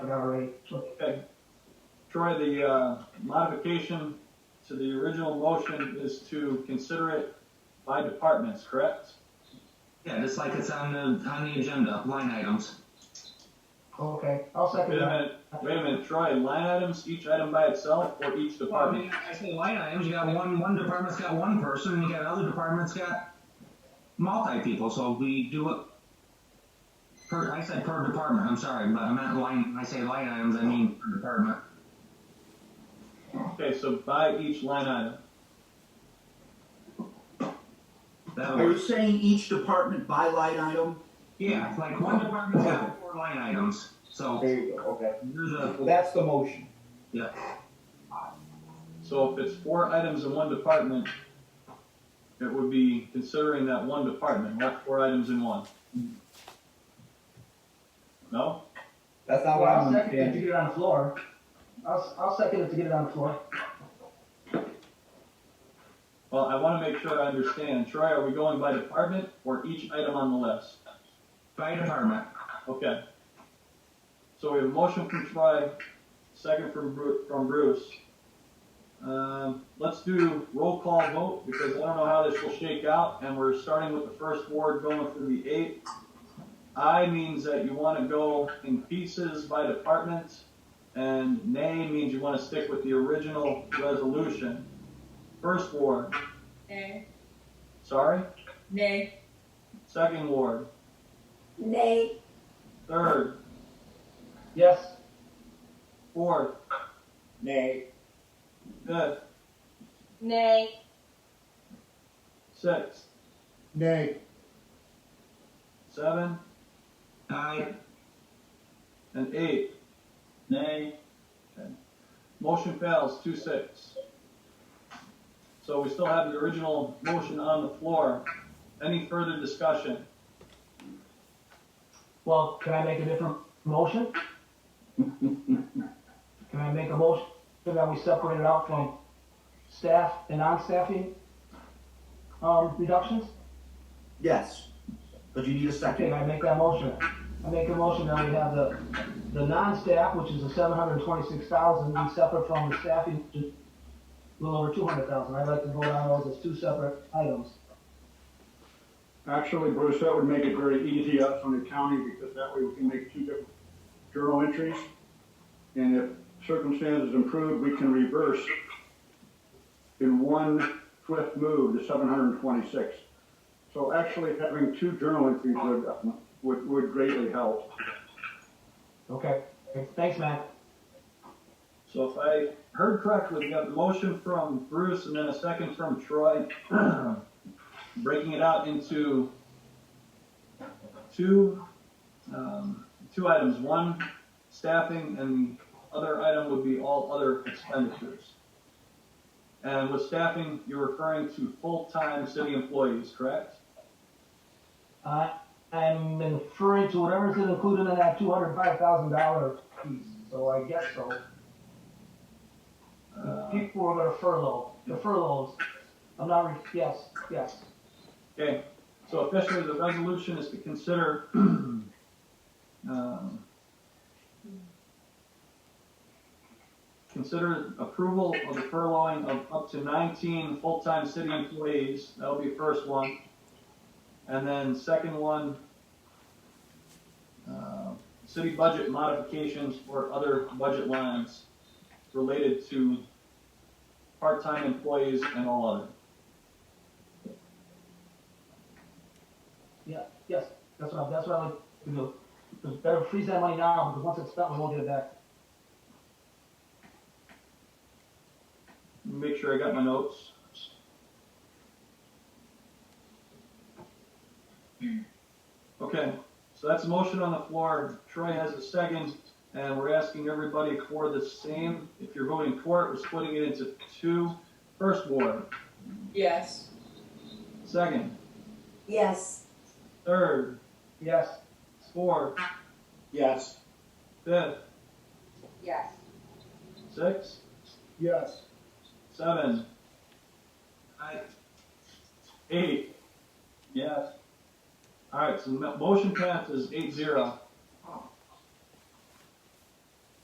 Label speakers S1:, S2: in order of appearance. S1: already.
S2: Okay. Troy, the uh, modification to the original motion is to consider it by departments, correct?
S3: Yeah, just like it's on the, on the agenda, line items.
S1: Okay, I'll second
S2: Wait a
S1: that.
S2: minute, wait a minute, Troy, line items, each item by itself or each
S3: Well, I
S2: department?
S3: mean, I say line items, you got one, one department's got one person, and you got other department's got multi people, so we do it per, I said per department, I'm sorry, but I meant line, I say line items, I mean per department.
S1: Uh-huh.
S2: Okay, so by each line item.
S3: That
S4: Are you
S3: would,
S4: saying each department by line item?
S3: yeah, like one department's got four line items, so
S4: There you go, okay.
S3: you're the,
S4: Well, that's the motion.
S2: So if it's four items in one department, it would be considering that one department, not four items in one. No?
S4: That's
S1: Well,
S4: not what
S1: I'll
S4: I'm
S1: second it to
S4: understanding.
S1: get it on the floor. I'll, I'll second it to get it on the floor.
S2: Well, I want to make sure I understand. Troy, are we going by department or each item on the list?
S3: by department,
S2: Okay. So we have a motion from Troy, second from Bru- from Bruce. Um, let's do roll call vote because I don't know how this will shake out, and we're starting with the first ward going through the eight. I means that you want to go in pieces by department, and nay means you want to stick with the original resolution. First ward,
S5: Nay.
S2: sorry.
S5: Nay.
S2: Second ward,
S5: Nay.
S2: third,
S1: Yes,
S2: fourth,
S4: Nay.
S2: fifth,
S5: Nay.
S2: sixth,
S4: Nay.
S2: seventh,
S3: I,
S2: And eight. Nay. Motion fails, two six. So we still have the original motion on the floor. Any further discussion?
S1: well, can I make a different motion? Can I make a motion that we separate it out from staff and non-staffing, um, reductions?
S4: Yes, but you need a
S1: Okay,
S4: second.
S1: I make that motion. I make a motion that we have the, the non-staff, which is the seven hundred and twenty-six thousand, be separate from the staffing, which is a little over two hundred thousand. I'd like to vote on those as two separate items.
S6: Actually, Bruce, that would make it very easy us on the county because that way we can make two different journal entries. And if circumstances improve, we can reverse in one swift move the seven hundred and twenty-six. So actually having two journal entries would, uh, would, would greatly help.
S1: Okay, thanks, Matt.
S2: So if I heard correctly, we got the motion from Bruce and then a second from Troy, breaking it out into two, um, two items, one staffing and the other item would be all other expenditures. And with staffing, you're referring to full-time city employees, correct?
S1: Uh, I'm referring to whatever's included in that two hundred five thousand dollar piece, so I guess so.
S2: Uh,
S1: People are gonna furlough, the furloughs, I'm not, re- yes, yes.
S2: Okay, so officially, the resolution is to consider, um, consider approval of the furloughing of up to nineteen full-time city employees, that'll be first one. And then second one, uh, city budget modifications or other budget lines related to part-time employees and all other.
S1: Yeah, yes, that's what, I- that's what I like to do. It's better freeze that money now, because once it's spent, we won't get it back.
S2: Make sure I got my notes. Okay, so that's a motion on the floor. Troy has a second, and we're asking everybody for the same. If you're voting for it, we're splitting it into two. First ward,
S5: Yes.
S2: second,
S5: Yes.
S2: third,
S1: Yes,
S2: fourth,
S4: Yes.
S2: fifth,
S5: Yes.
S2: sixth,
S6: Yes.
S2: seven,
S3: I,
S2: eight.
S6: Yes.
S2: All right, so the motion passes eight zero.